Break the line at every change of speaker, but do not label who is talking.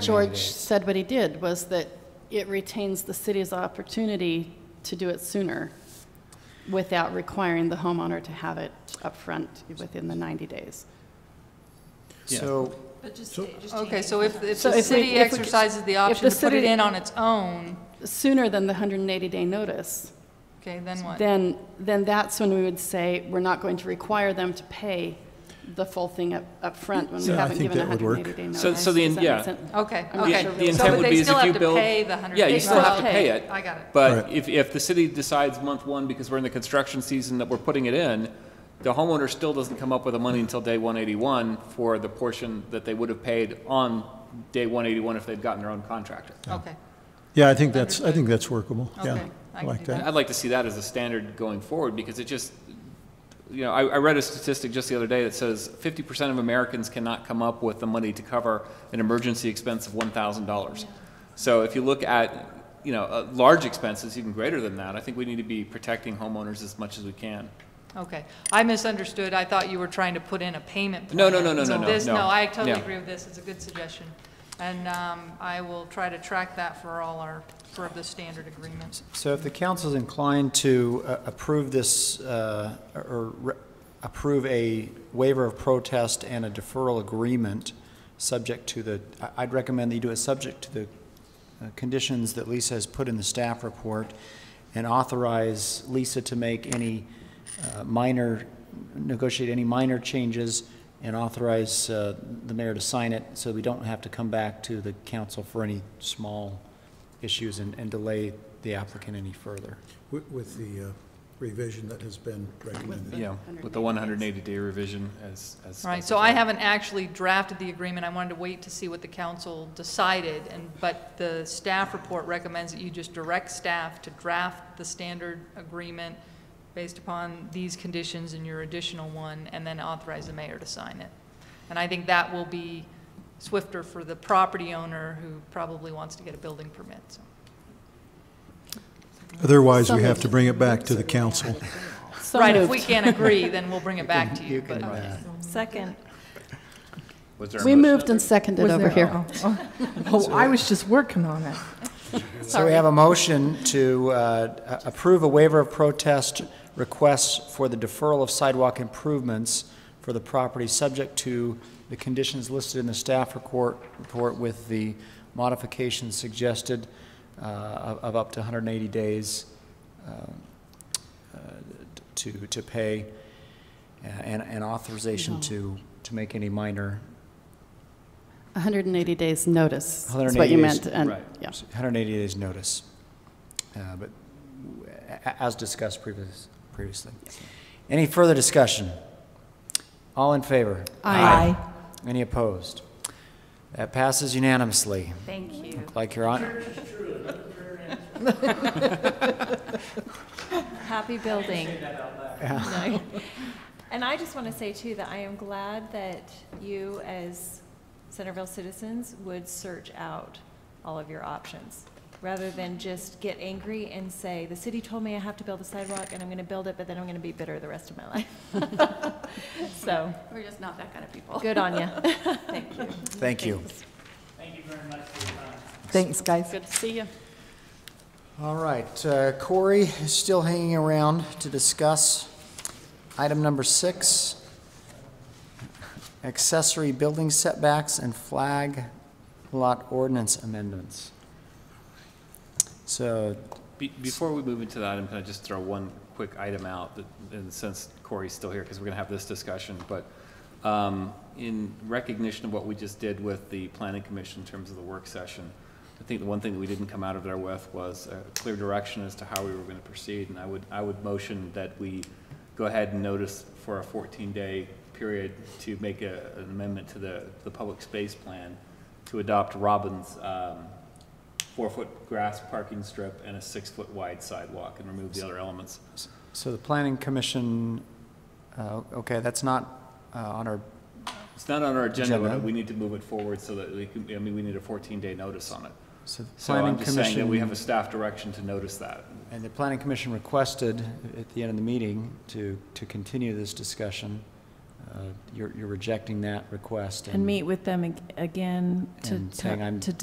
George said what he did, was that it retains the city's opportunity to do it sooner without requiring the homeowner to have it up front within the 90 days.
So,
Okay, so if, if
So
the
if we-
city
if we-
exercises the
if
option
the
to put it
city-
in on its own,
Sooner than the 180-day notice,
okay, then what?
then, then that's when we would say, we're not going to require them to pay the full thing up up front when we
Yeah, I
haven't
think
given a
that would work.
180-day notice.
So- so the-
Does that make
yeah.
sense?
Okay,
I'm not
okay.
sure
The- The
really.
So, but
intent would
they
be is
still
if you
have to
build.
pay the 100
Yeah, you
days.
still have to
Right.
pay it.
I got it.
But
Right.
if, if the city decides month one, because we're in the construction season that we're putting it in, the homeowner still doesn't come up with the money until day one eighty-one for the portion that they would have paid on day one eighty-one if they'd gotten their own contractor.
Okay,
yeah, I think that's, I think that's workable, yeah.
Okay,
I
I can
like
do
that.
that.
I'd like to see that as a standard going forward, because it just, you know, I, I read a statistic just the other day that says fifty percent of Americans cannot come up with the money to cover an emergency expense of one thousand dollars. So if you look at, you know, uh, large expenses, even greater than that, I think we need to be protecting homeowners as much as we can.
okay. I misunderstood. I thought you were trying to put in a payment plan.
No, no, no, no,
So
no, no,
this-
no.
No, I totally
Yeah.
agree with this. It's a good suggestion. And um, I will try to track that for all our, for the standard agreements.
so if the council's inclined to uh, approve this, uh, or re- approve a waiver of protest and a deferral agreement, subject to the, I- I'd recommend that you do it subject to the uh, conditions that Lisa has put in the staff report, and authorize Lisa to make any uh, minor, negotiate any minor changes, and authorize uh, the mayor to sign it, so we don't have to come back to the council for any small issues and and delay the applicant any further.
With- With the uh, revision that has been recommended.
Yeah, with the one hundred and eighty day revision as, as.
Right, so I haven't actually drafted the agreement, I wanted to wait to see what the council decided, and, but the staff report recommends that you just direct staff to draft the standard agreement based upon these conditions and your additional one, and then authorize the mayor to sign it. And I think that will be swifter for the property owner who probably wants to get a building permit, so.
Otherwise, we
Some
have to
of-
bring it back to the council.
So
Oh, Right, if
moved.
we can't agree, then we'll bring it back to you, but,
Second.
Was there a
We
motion?
moved and seconded
Was
over
there-
here.
oh, oh. Oh, I was just working on it.
So we have a motion to uh, a- approve a waiver of protest request for the deferral of sidewalk improvements for the property, subject to the conditions listed in the staff report, report with the modifications suggested uh, of of up to 180 days um, uh, to, to pay, uh, and and authorization to, to make any minor,
180 days notice is what
180
you
days,
meant. and-
right.
yeah.
180 days notice, Uh, but a- a- as discussed previous- previously. Any further discussion? All in favor?
Aye.
Any opposed? That passes unanimously.
Thank you.
Like your honor,
Happy building. No. And I just want to say too, that I am glad that you as Centerville citizens would search out all of your options, rather than just get angry and say, the city told me I have to build a sidewalk and I'm going to build it, but then I'm going to be bitter the rest of my life. So,
We're just not that kind of people.
good on you.
thank you.
Thanks, guys.
Good to see you.
All right, uh, Corey is still hanging around to discuss item number six, accessory building setbacks and flag lot ordinance amendments. So,
Be- Before we move into that, I'm going to just throw one quick item out, that- and since Corey's still here, because we're going to have this discussion, but um, in recognition of what we just did with the planning commission in terms of the work session, I think the one thing that we didn't come out of there with was a clear direction as to how we were going to proceed, and I would, I would motion that we go ahead and notice for a 14-day period to make a- an amendment to the, the public space plan to adopt Robin's um, four-foot grass parking strip and a six-foot wide sidewalk and remove the other elements.
so the planning commission, uh, okay, that's not uh, on our,
It's not on our agenda, but
Agenda.
we need to move it forward so that we can, I mean, we need a fourteen-day notice on it.
so the
So
planning
I'm
commission.
just saying that we have a staff direction to notice that.
And the planning commission requested at the end of the meeting to, to continue this discussion uh,
uh, you're you're rejecting that request.
And meet with them ag- again to,
And saying
to
I'm-
to